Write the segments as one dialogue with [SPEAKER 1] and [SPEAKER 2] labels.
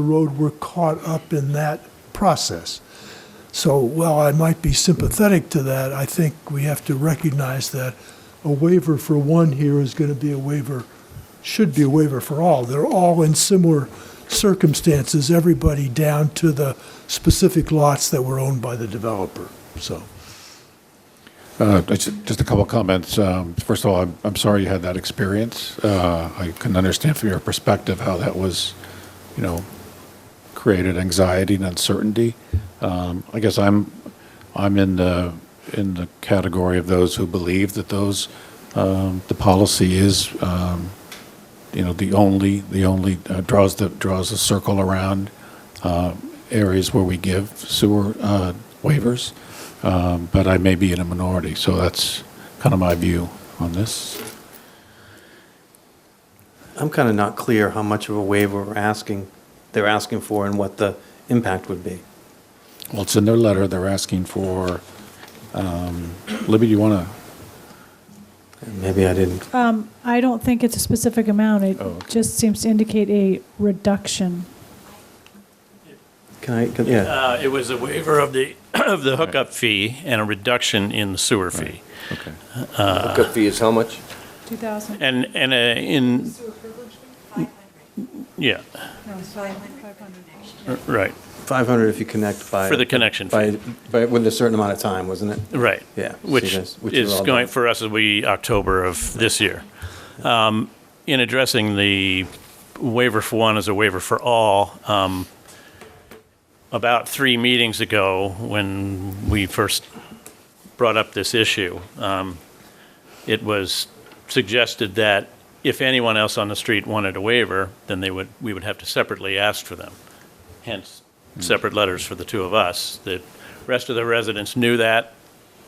[SPEAKER 1] the road, we're caught up in that process. So while I might be sympathetic to that, I think we have to recognize that a waiver for one here is going to be a waiver, should be a waiver for all. They're all in similar circumstances, everybody down to the specific lots that were owned by the developer, so.
[SPEAKER 2] Uh, Just just a couple of comments. Um, First of all, I'm- I'm sorry you had that experience. Uh, I can understand from your perspective how that was, you know, created anxiety and uncertainty. Um, I guess I'm, I'm in the, in the category of those who believe that those, um, the policy is, um, you know, the only, the only, uh, draws the, draws a circle around uh, areas where we give sewer uh, waivers, Um, but I may be in a minority, so that's kind of my view on this.
[SPEAKER 3] I'm kind of not clear how much of a waiver we're asking, they're asking for and what the impact would be.
[SPEAKER 2] Well, it's in their letter, they're asking for, um, Libby, do you want to?
[SPEAKER 3] Maybe I didn't,
[SPEAKER 4] I don't think it's a specific amount.
[SPEAKER 5] Oh,
[SPEAKER 4] It just seems to indicate a reduction.
[SPEAKER 3] can I, can- yeah,
[SPEAKER 5] Uh, It was a waiver of the, of the hookup fee and a reduction in the sewer fee.
[SPEAKER 2] Okay.
[SPEAKER 6] Hookup fee is how much?
[SPEAKER 4] 2,000.
[SPEAKER 5] And, and uh, in,
[SPEAKER 7] Sewer privilege fee, 500.
[SPEAKER 5] yeah,
[SPEAKER 4] No, it's
[SPEAKER 7] 500.
[SPEAKER 5] r- right,
[SPEAKER 3] 500 if you connect by.
[SPEAKER 5] for the connection fee,
[SPEAKER 3] By, by, with a certain amount of time, wasn't it?
[SPEAKER 5] right.
[SPEAKER 3] Yeah, so
[SPEAKER 5] Which
[SPEAKER 3] you guys- which is
[SPEAKER 5] is
[SPEAKER 3] all
[SPEAKER 5] going,
[SPEAKER 3] done.
[SPEAKER 5] for us, will be October of this year. Um, In addressing the waiver for one as a waiver for all, um, about three meetings ago, when we first brought up this issue, um, it was suggested that if anyone else on the street wanted a waiver, then they would, we would have to separately ask for them. Hence,
[SPEAKER 3] Hmm.
[SPEAKER 5] separate letters for the two of us. The rest of the residents knew that.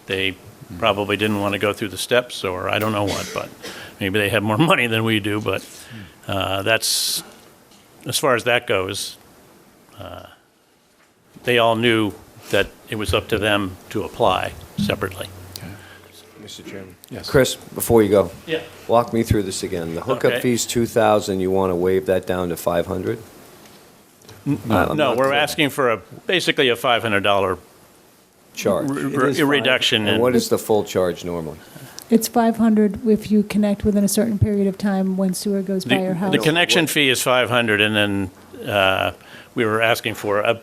[SPEAKER 5] They probably didn't want to go through the steps, or I don't know what, but maybe they have more money than we do, but uh, that's, as far as that goes, uh, they all knew that it was up to them to apply separately.
[SPEAKER 6] Mr. Chairman.
[SPEAKER 2] Yes.
[SPEAKER 6] Chris, before you go,
[SPEAKER 5] Yeah.
[SPEAKER 6] walk me through this again. The hookup
[SPEAKER 5] Okay.
[SPEAKER 6] fee's 2,000, you want to waive that down to 500? I'm
[SPEAKER 5] No,
[SPEAKER 6] not
[SPEAKER 5] we're
[SPEAKER 6] clear.
[SPEAKER 5] asking for a, basically a $500
[SPEAKER 6] Charge.
[SPEAKER 5] re-
[SPEAKER 3] It is
[SPEAKER 5] re-
[SPEAKER 3] five.
[SPEAKER 5] reduction.
[SPEAKER 6] And
[SPEAKER 5] in-
[SPEAKER 6] what is the full charge normally?
[SPEAKER 4] It's 500 if you connect within a certain period of time when sewer goes by your
[SPEAKER 5] The
[SPEAKER 4] house.
[SPEAKER 5] the connection fee is 500, and then uh, we were asking for a- a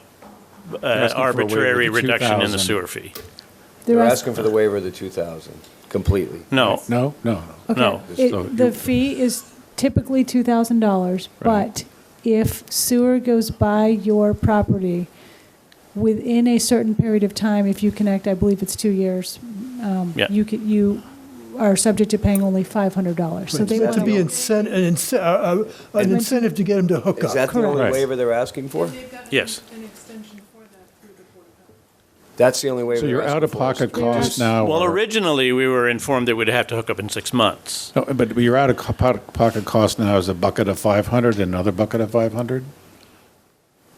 [SPEAKER 2] waiver to
[SPEAKER 5] arbitrary reduction in the
[SPEAKER 2] 2,000.
[SPEAKER 5] sewer fee.
[SPEAKER 4] The
[SPEAKER 6] They're
[SPEAKER 4] rest-
[SPEAKER 6] asking for the waiver of the 2,000 completely.
[SPEAKER 5] No,
[SPEAKER 2] No, no, no.
[SPEAKER 4] Okay.
[SPEAKER 5] no.
[SPEAKER 4] It-
[SPEAKER 2] So you-
[SPEAKER 4] The fee is typically $2,000, but if sewer goes by your property within a certain period of time, if you connect, I believe it's two years, um,
[SPEAKER 5] Yeah.
[SPEAKER 4] you could, you are subject to paying only $500. So they
[SPEAKER 1] It's to
[SPEAKER 4] want
[SPEAKER 1] be incentive, an incen- uh, uh, an incentive to get them to hook
[SPEAKER 6] Is
[SPEAKER 1] up.
[SPEAKER 6] that the only
[SPEAKER 2] Correct.
[SPEAKER 6] waiver they're asking for?
[SPEAKER 7] They've got
[SPEAKER 5] Yes.
[SPEAKER 7] an extension for that through the Board of Health.
[SPEAKER 6] That's the only waiver
[SPEAKER 2] So
[SPEAKER 6] they're
[SPEAKER 2] your
[SPEAKER 6] asking for?
[SPEAKER 2] out-of-pocket
[SPEAKER 4] They're
[SPEAKER 2] costs
[SPEAKER 4] ask-
[SPEAKER 2] now.
[SPEAKER 5] Well,
[SPEAKER 2] are-
[SPEAKER 5] originally, we were informed that we'd have to hook up in six months.
[SPEAKER 2] No, But your out-of-pocket cost now is a bucket of 500 and another bucket of 500?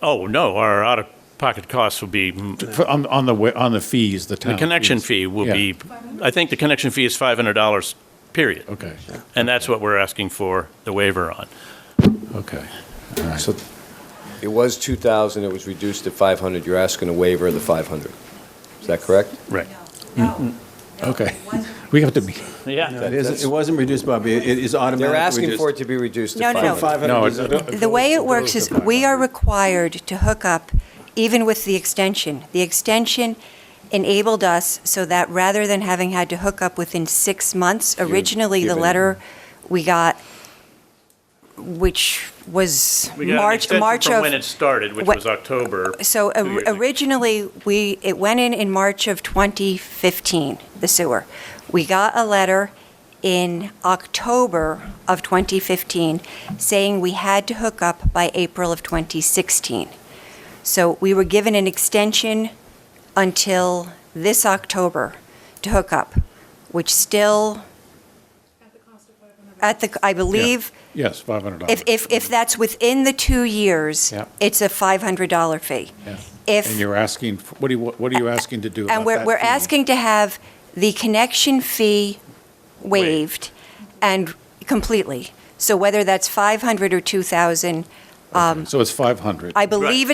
[SPEAKER 5] Oh, no, our out-of-pocket costs will be, the
[SPEAKER 2] For- On, on the, wa- on the fees, the town.
[SPEAKER 5] connection
[SPEAKER 2] fees.
[SPEAKER 5] fee will
[SPEAKER 2] Yeah.
[SPEAKER 5] be, I think the connection fee is $500, period.
[SPEAKER 2] Okay,
[SPEAKER 5] And that's what we're asking for the waiver on.
[SPEAKER 2] okay. All right.
[SPEAKER 6] So it was 2,000, it was reduced to 500, you're asking a waiver of the 500. Is that correct?
[SPEAKER 5] Right.
[SPEAKER 2] Mm, Okay. We have to be,
[SPEAKER 5] Yeah.
[SPEAKER 8] It
[SPEAKER 6] That-
[SPEAKER 8] isn't- It wasn't reduced, Bobby. It is automatically
[SPEAKER 6] They're asking
[SPEAKER 8] reduced.
[SPEAKER 6] for it to be reduced to
[SPEAKER 9] No,
[SPEAKER 6] 500.
[SPEAKER 9] no, no.
[SPEAKER 2] no,
[SPEAKER 8] 500
[SPEAKER 2] it-
[SPEAKER 9] The way it works is we are required to hook up even with the extension. The extension enabled us so that rather than having had to hook up within six months, originally the
[SPEAKER 6] given-
[SPEAKER 9] letter we got, which was
[SPEAKER 5] We got an
[SPEAKER 9] March,
[SPEAKER 5] extension
[SPEAKER 9] March
[SPEAKER 5] from
[SPEAKER 9] of.
[SPEAKER 5] when it started, which
[SPEAKER 9] What-
[SPEAKER 5] was October.
[SPEAKER 9] So
[SPEAKER 5] two
[SPEAKER 9] or-
[SPEAKER 5] years ago.
[SPEAKER 9] originally, we, it went in in March of 2015, the sewer. We got a letter in October of 2015 saying we had to hook up by April of 2016. So we were given an extension until this October to hook up, which still,
[SPEAKER 7] At the cost of 500.
[SPEAKER 9] at the, I believe,
[SPEAKER 2] yes, $500.
[SPEAKER 9] if, if, if that's within the two years,
[SPEAKER 2] Yeah.
[SPEAKER 9] it's a $500 fee.
[SPEAKER 2] Yeah.
[SPEAKER 9] If.
[SPEAKER 2] And you're asking, f- what do you, what are you asking to do about
[SPEAKER 9] And we're,
[SPEAKER 2] that
[SPEAKER 9] we're
[SPEAKER 2] fee?
[SPEAKER 9] asking to have the connection fee
[SPEAKER 5] Waived.
[SPEAKER 9] waived and completely. So whether that's 500 or 2,000, Um,
[SPEAKER 2] So it's 500.
[SPEAKER 9] I believe